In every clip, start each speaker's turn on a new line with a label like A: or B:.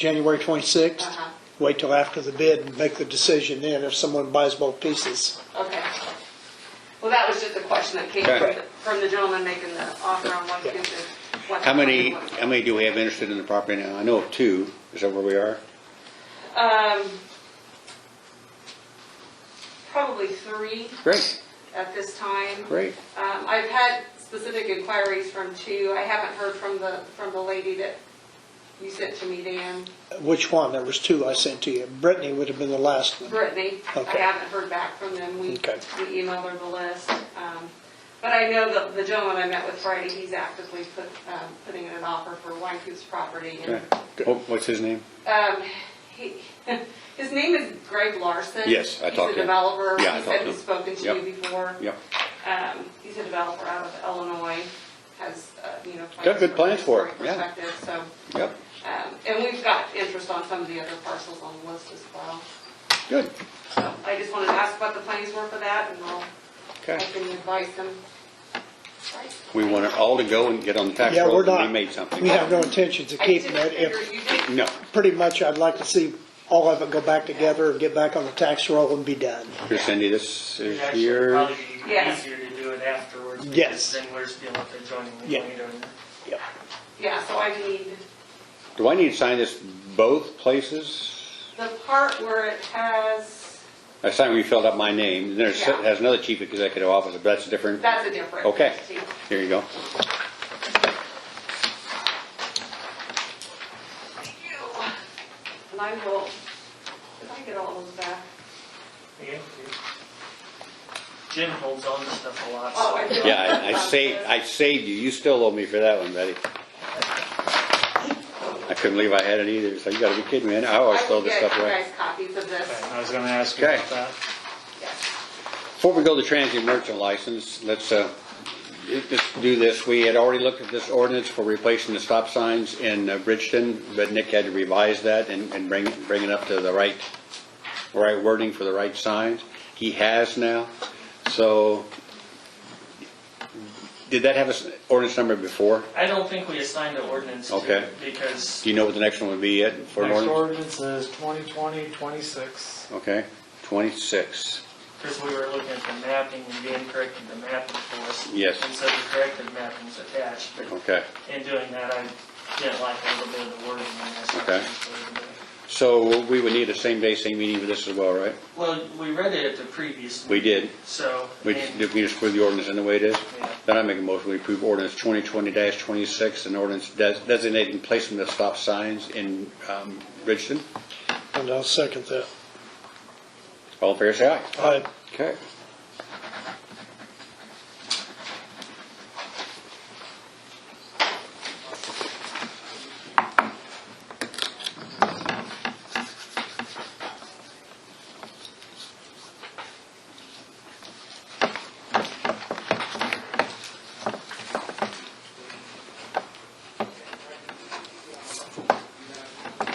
A: January 26th?
B: Uh-huh.
A: Wait till after the bid and make the decision then if someone buys both pieces.
B: Okay. Well, that was just a question that came from,
C: Okay.
B: the- from the gentleman making the offer on one fifty.
C: How many, how many do we have interested in the property now? I know of two. Is that where we are?
B: Um, probably three
C: Great,
B: at this time.
C: great.
B: Um, I've had specific inquiries from two. I haven't heard from the, from the lady that you sent to me, Dan.
A: Which one? There was two I sent to you. Brittany would have been the last one.
B: Brittany. I
A: Okay.
B: haven't heard back from them. We, we
A: Okay.
B: emailed her the list. Um, But I know the, the gentleman I met with Friday, he's actively put, um, putting in an offer for Wycoop's property. and,
C: Okay. What- Oh, What's his name?
B: um, he- His name is Greg Larson.
C: Yes, I
B: He's
C: talked to
B: a
C: him.
B: developer.
C: Yeah, I
B: He
C: talked
B: said
C: to
B: he's
C: him.
B: spoken to
C: Yep.
B: you before.
C: Yep.
B: Um, He's a developer out of Illinois, has, uh, you know.
C: Got good plans
B: from a
C: for it, yeah.
B: historic Perspective, so,
C: Yep,
B: um, and we've got interest on some of the other parcels on the list as well.
C: good.
B: So I just wanted to ask what the plans were for that, and I'll, I
C: Okay.
B: can advise them.
C: We want it all to go and get on the tax
A: Yeah, we're
C: roll
A: not.
C: and we made something.
A: We have no intentions of
B: I
A: keeping
B: didn't
A: it.
B: figure
A: If,
B: you did.
C: No,
A: pretty much, I'd like to see all of it go back together and get back on the tax roll and be done.
C: here Cindy, this is
D: It'd actually
C: your,
D: probably be
B: Yes.
D: easier to do it afterwards. because
A: Yes.
D: Then we're still up there joining the
A: Yeah.
D: later. and-
A: Yep.
B: Yeah, so I need
C: do I need to sign this both places?
B: the part where it has,
C: I signed where you filled out my name. and There's,
B: Yeah.
C: it has another chief executive officer, but that's different.
B: that's a different.
C: Okay,
B: See,
C: here you go.
B: Thank you. And I will, if I get all those back.
D: Yeah. Jim holds on to stuff a lot.
B: Oh, I
D: so-
B: do.
C: Yeah, I- I saved, I saved you. You still owe me for that one, buddy. I couldn't believe I had it either. So you gotta be kidding me. I always
B: I
C: throw
B: will
C: this
B: get
C: stuff
B: you
C: away.
B: guys copies of this.
E: I was gonna ask you
C: Okay.
E: about that.
B: Yes.
C: Before we go to transient merchant license, let's, uh, just do this. We had already looked at this ordinance for replacing the stop signs in uh, Bridgeton, but Nick had to revise that and, and bring, bring it up to the right, right wording for the right signs. He has now, so, did that have an ordinance number before?
D: I don't think we assigned an ordinance to
C: Okay.
D: it because
C: Do you know what the next one would be yet for an
E: Next
C: ordinance?
E: ordinance is 2020-26.
C: Okay, twenty-six.
D: because we were looking at the mapping and Dan corrected the mapping for us.
C: Yes.
D: And so the corrected mapping's attached, but
C: Okay,
D: in doing that, I didn't like a little bit of the wording in this.
C: Okay. so we would need a same-day, same meeting for this as well, right?
D: Well, we read it at the previous,
C: We did.
D: so.
C: We
D: and-
C: just, we just put the ordinance in the way it is?
D: Yeah.
C: Then I make a motion, we approve ordinance twenty twenty twenty-six, an ordinance des- designating placement of stop signs in, um, Bridgeton.
A: And I'll second that.
C: All in favor, say aye.
A: I,
C: Okay.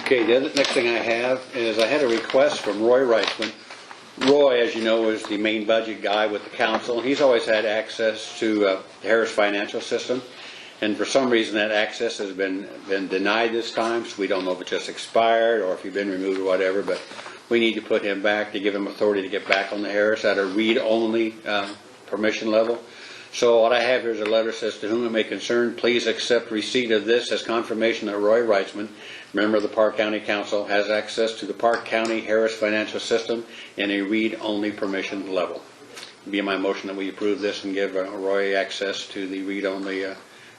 C: Okay, the other- next thing I have is I had a request from Roy Reichman. Roy, as you know, is the main budget guy with the council. He's always had access to uh, the Harris Financial System, and for some reason, that access has been, been denied this time, so we don't know if it just expired or if he's been removed or whatever, but we need to put him back to give him authority to get back on the Harris at a read-only um, permission level. So what I have here is a letter says, "To whom it may concern, please accept receipt of this as confirmation that Roy Reitzman, member of the Park County Council, has access to the Park County Harris Financial System in a read-only permission level." Be my motion that we approve this and give uh, Roy access to the read-only uh,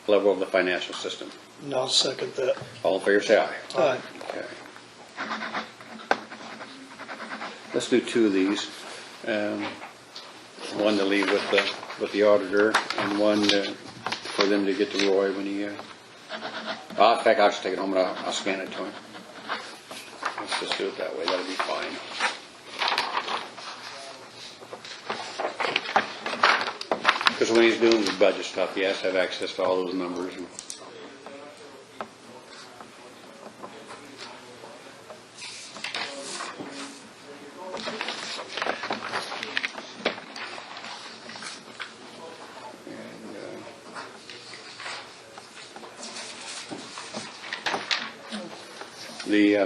C: level of the financial system.
A: and I'll second that.
C: All in favor, say aye.
A: Aye.
C: Okay. Let's do two of these. Um, One to leave with the, with the auditor and one uh, for them to get to Roy when he, uh, uh, in fact, I'll just take it home and I'll, I'll scan it to him. Let's just do it that way, that'll be fine. Because when he's doing the budget stuff, he has to have access to all those numbers and. And, uh, the uh,